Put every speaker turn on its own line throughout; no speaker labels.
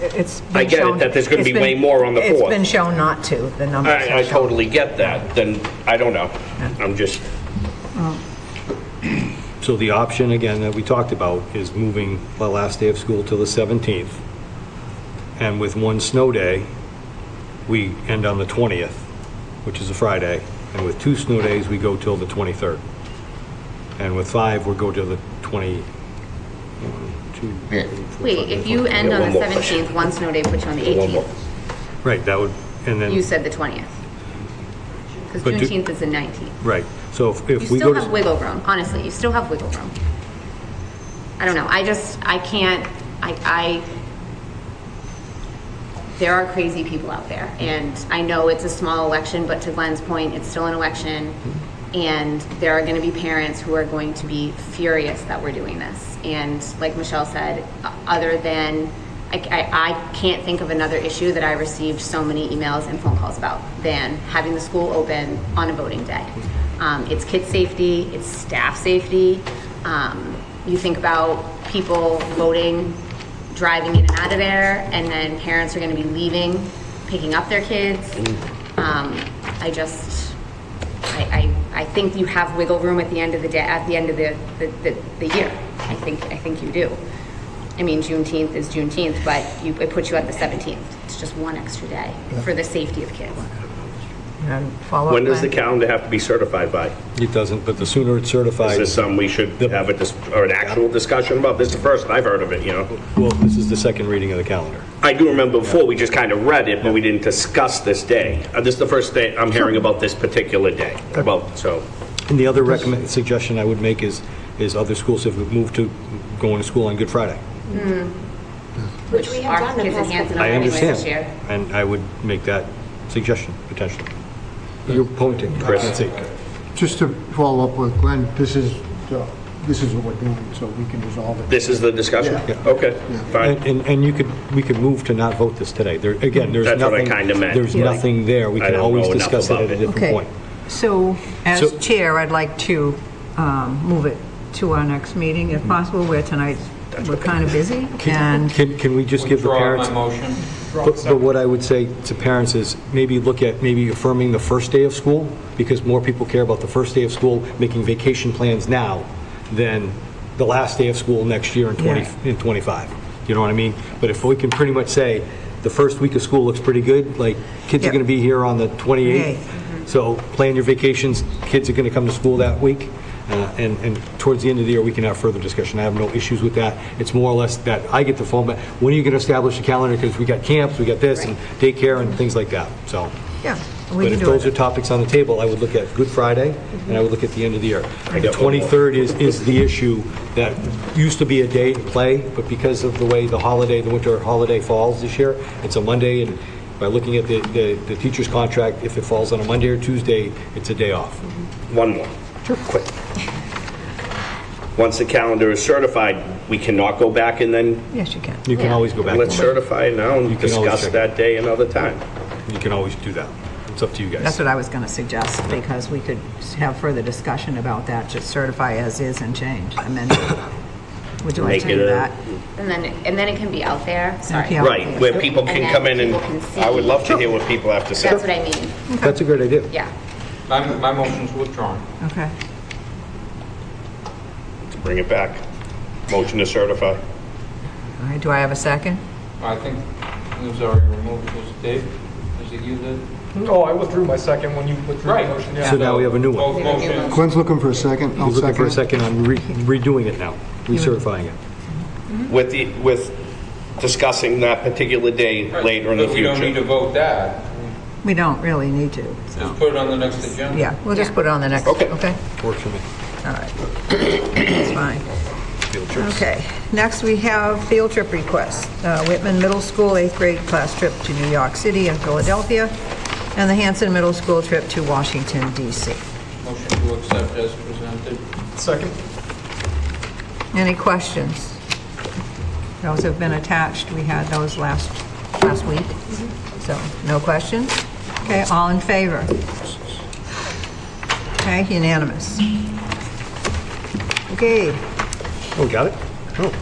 It's been
I get it,
shown-
that there's gonna
it's
be
been-
way more on the
It's
fourth.
been shown not to, the numbers.
I, I totally get that, then, I don't know. I'm just,
So the option, again, that we talked about is moving the last day of school to the 17th. And with one snow day, we end on the 20th, which is a Friday. And with two snow days, we go till the 23rd. And with five, we go to the 20, one, two, three, four, five,
Wait, if you end
Yeah,
on
one
the
more question.
17th, one snow day puts you on the
one more.
18th.
Right, that would, and
You
then,
said the 20th. Because
But do-
Juneteenth is the 19th.
right. So if
You
if we go
still
to...
have wiggle room, honestly, you still have wiggle room. I don't know, I just, I can't, I, I, there are crazy people out there, and I know it's a small election, but to Glenn's point, it's still an election, and there are gonna be parents who are going to be furious that we're doing this. And like Michelle said, o- other than, I, I, I can't think of another issue that I received so many emails and phone calls about than having the school open on a voting day. Um, it's kid safety, it's staff safety, um, you think about people voting driving in and out of there, and then parents are going to be leaving, picking up their kids. Um, I just, I, I, I think you have wiggle room at the end of the day, at the end of the, the, the, the year. I think, I think you do. I mean, Juneteenth is Juneteenth, but you, it puts you at the 17th. It's just one extra day for the safety of kids.
And follow up
When does the
plan.
calendar have to be certified by?
It doesn't, but the sooner it's
Is
certified,
this something we should have a, dis- or an actual discussion about? This is the first I've heard of it, you know?
well, this is the second reading of the calendar.
I do remember before, we just kind of read it, but we didn't discuss this day. Uh, This is the first day I'm hearing about this particular day, about, so,
And the other recommend, suggestion I would make is, is other schools have moved to going to school on Good Friday.
Which we have done in Hanson
I
anyway
understand.
this year.
And I would make that suggestion, potentially. You're pointing, I
Chris.
can't see.
Just to follow up with Glenn, this is, uh, this is what we're doing, so we can resolve it.
this is the discussion?
Yeah.
Okay, fine.
And, and- and you could, we could move to not vote this today. There, again, there's
That's
nothing.
what I kinda meant.
There's
Yeah.
nothing there. We
I
can
don't
always
know enough
discuss it
about
at a
it.
different
Okay,
point.
so as
So-
chair, I'd like to um, move it to our next meeting
Mm-hmm.
if possible. We're tonight, we're kind of busy and
Can, can we just give the
Withdraw
parents?
my motion.
But but what I would say to parents is maybe look at, maybe affirming the first day of school, because more people care about the first day of school, making vacation plans now than the last day of school next year in 20,
Yeah.
in 25. You know what I mean? But if we can pretty much say, the first week of school looks pretty good, like, kids are
Yep.
going to be here on the
Yay.
28th. So plan your vacations, kids are going to come to school that week. uh, And, and towards the end of the year, we can have further discussion. I have no issues with that. It's more or less that I get the phone, but when are you going to establish a calendar? Because we got camps, we got this, and daycare and things like that, so.
Yeah, we
But
can
if
do
those are
it.
topics on the table, I would look at Good Friday, and I would look at the end of the year. The
got one more.
23rd is, is the issue that used to be a day to play, but because of the way the holiday, the winter holiday falls this year, it's a Monday, and by looking at the, the the teacher's contract, if it falls on a Monday or Tuesday, it's a day off.
One more. Sure. Quick. Once the calendar is certified, we cannot go back and then,
Yes, you can.
You can always go back.
let's
to Monday.
certify it now and
You can always
discuss
check it.
that day another time.
You can always do that. It's up to you
That's
guys.
what I was going to suggest because we could have further discussion about that, just certify as is and change, amend it. Would you like to
Make it
do
a-
that?
And then, and then it can be out there, sorry.
yeah.
Right, where people
And
can
then
come in and,
people can see.
I would love to hear what people have to say.
That's what I mean,
That's a great idea.
yeah.
My, my motion's withdrawn.
Okay.
To Bring it back. Motion to certify.
All right, do I have a second?
I think it was already removed, was it Dave? Was it you that?
Oh, I withdrew my second when you withdrew
Right.
your motion,
So
yeah.
now we have a new one.
Both motions.
Glenn's looking for a second, I'll
He's looking for a
second it.
second on re- redoing it now, recertifying it.
With, the with discussing that particular day later in the
But we don't need to
future.
vote that.
We don't really need to.
Just put it on the next agenda.
Yeah, we'll just put it on the next,
Okay.
okay?
Works for me.
All right. That's fine. Okay. Next, we have field trip requests. Uh, Whitman Middle School eighth grade class trip to New York City and Philadelphia, and the Hanson Middle School trip to Washington DC.
Motion to accept as presented.
Second,
Any questions? Those have been attached. We had those last, last week. So, no questions? Okay, all in favor? Okay, unanimous. Okay,
Oh, got it? Oh,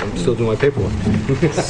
I'm still doing my paperwork.